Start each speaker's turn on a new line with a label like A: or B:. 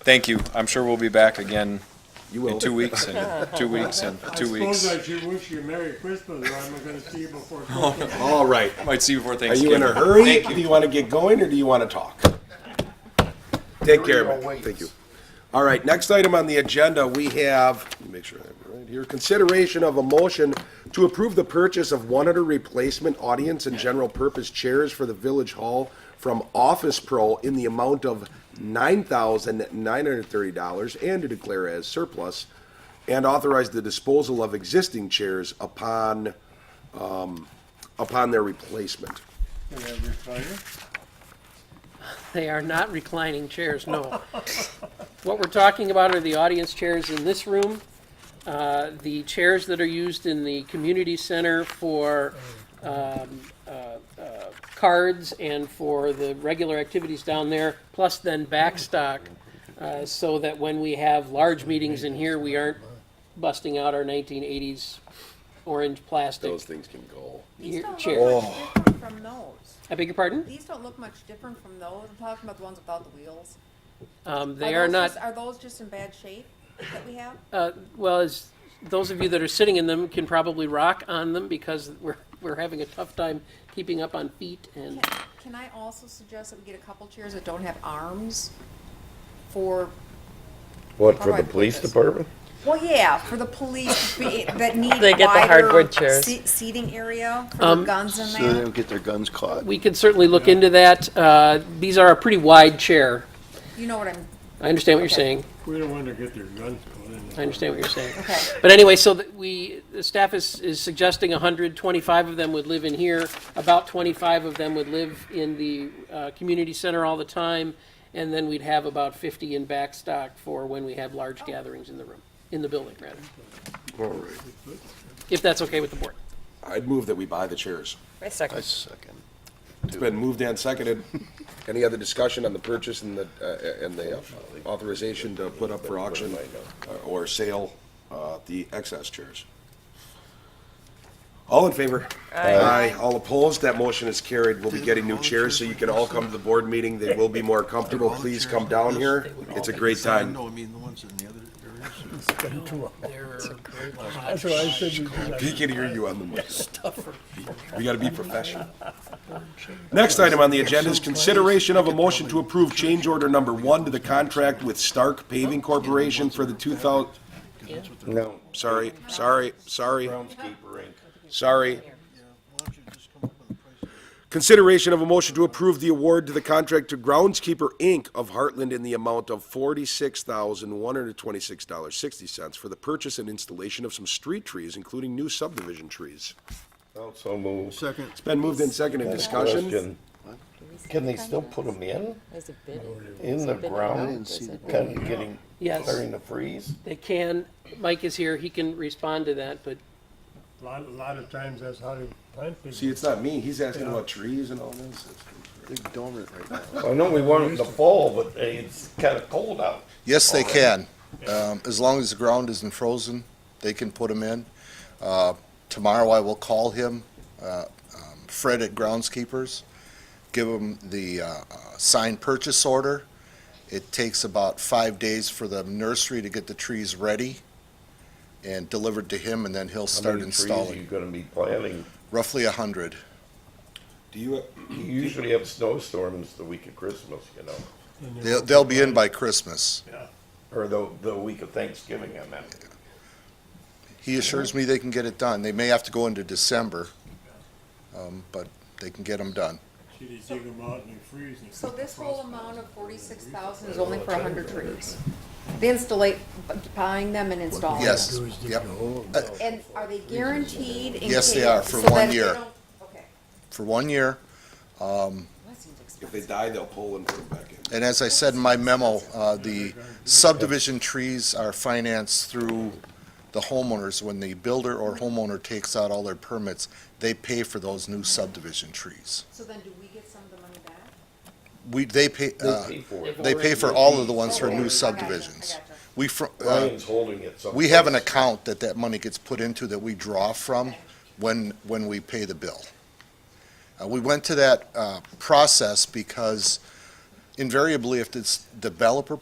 A: thank you. I'm sure we'll be back again
B: You
A: in two weeks and two weeks and two weeks.
C: I suppose I should wish you Merry Christmas, or I'm gonna see you before Christmas.
B: All right.
A: Might see you before
B: Are
A: Thanksgiving.
B: you in a hurry?
A: Thank
B: Do
A: you.
B: you want to get going or do you want to talk? Take care of it. Thank you. All right, next item on the agenda, we have, let me make sure I have it right here, consideration of a motion to approve the purchase of one hundred replacement audience and general purpose chairs for the village hall from Office Pro in the amount of nine thousand nine hundred thirty dollars and to declare as surplus and authorize the disposal of existing chairs upon, um, upon their replacement.
C: Can I retire?
D: They are not reclining chairs, no. What we're talking about are the audience chairs in this room, uh, the chairs that are used in the community center for um, uh, uh, cards and for the regular activities down there, plus then backstock, uh, so that when we have large meetings in here, we aren't busting out our 1980s orange plastic
B: Those things can go.
D: ear-
E: These don't
D: chairs.
E: look
F: Oh.
E: much different from those.
D: I beg your pardon?
E: These don't look much different from those. I'm talking about the ones without the wheels.
D: Um, They are
E: those
D: not.
E: just- Are those just in bad shape that we have?
D: Uh, well, as those of you that are sitting in them can probably rock on them because we're, we're having a tough time keeping up on feet and,
E: Can- Can I also suggest that we get a couple chairs that don't have arms for,
F: What,
E: How
F: for
E: do I
F: the
E: put
F: police
E: this?
F: department?
E: well, yeah, for the police to be- that need
G: They get the
E: wider
G: hardwood chairs. Um,
E: se- Seating area for their guns in
F: So they
E: there.
F: don't get their guns caught?
D: we could certainly look into that. Uh, these are a pretty wide chair.
E: You know what I'm,
D: I understand what you're
E: Okay.
D: saying.
C: We don't wanna get their guns pulled in.
D: I understand what you're saying.
E: okay.
D: But anyway, so that we, the staff is, is suggesting 125 of them would live in here. About 25 of them would live in the uh, community center all the time. And then we'd have about 50 in back stock for when we have
E: Oh.
D: large gatherings in the room, in the building, rather. If that's okay with the board.
B: I'd move that we buy the chairs.
G: Wait a second.
F: I second.
B: It's been moved and seconded. Any other discussion on the purchase and the, uh, and the authorization to put up for auction uh, or sale, uh, the excess chairs? All in favor? Aye. All opposed? That motion is carried. We'll be getting new chairs, so you can all come to the board meeting. They will be more comfortable. Please come down here. It's a great time.
F: I mean, the ones in the other areas.
C: That's what I said. we do.
B: He can hear you on the mic. We gotta be professional. Next item on the agenda is consideration of a motion to approve change order number one to the contract with Stark Paving Corporation for the two thousand,
F: No.
B: sorry, sorry, sorry. Sorry. Consideration of a motion to approve the award to the contract to Groundskeeper Inc. of Heartland in the amount of forty-six thousand, one hundred and twenty-six dollars, sixty cents for the purchase and installation of some street trees, including new subdivision trees.
F: So moved.
H: Second.
B: It's been moved and seconded. Discussion?
F: Question. Can they still put them in,
G: Is it bid?
F: in the ground,
G: Is it-
F: kind of getting,
D: Yes.
F: clearing the freeze?
D: They can, Mike is here, he can respond to that, but
C: Lot, a lot of times that's how they plant things.
B: See, it's not me. He's asking about trees and all this.
H: They're dormant right now.
F: I know we want it in the fall, but it's kind of cold out.
I: Yes, they can. Um, As long as the ground isn't frozen, they can put them in. Uh, Tomorrow I will call him, uh, um, Fred at Groundskeepers, give him the uh, uh, signed purchase order. It takes about five days for the nursery to get the trees ready and delivered to him, and then he'll start
F: How many trees are you
I: installing.
F: gonna be planting?
I: Roughly a 100.
B: Do you,
F: You usually have snowstorms the week of Christmas, you know,
I: They'll they'll be in by Christmas.
F: or the, the week of Thanksgiving, I meant.
I: He assures me they can get it done. They may have to go into December, um, but they can get them done.
C: See, they dig 'em out and they freeze and.
E: So this whole amount of forty-six thousand is only for a hundred trees? They installate, buying them and installing them?
I: Yes, yep,
E: And are they guaranteed in case?
I: Yes, they are, for
E: so that
I: one
E: if they
I: year.
E: don't- Okay.
I: for one year.
E: Well, that seems expensive.
B: if they die, they'll pull and put it back in.
I: And as I said in my memo, uh, the subdivision trees are financed through the homeowners. When the builder or homeowner takes out all their permits, they pay for those new subdivision trees.
E: So then do we get some of the money back?
I: We, they pay,
F: They
I: uh,
F: pay for it.
I: they pay for all of the ones for
E: Oh, Okay, I
I: new
E: gotcha,
I: subdivisions.
E: I gotcha.
I: We, fr- uh,
F: Ryan's holding it someplace.
I: we have an account that that money gets put into that we draw from when, when we pay the bill. Uh, we went to that, uh, process because invariably if this developer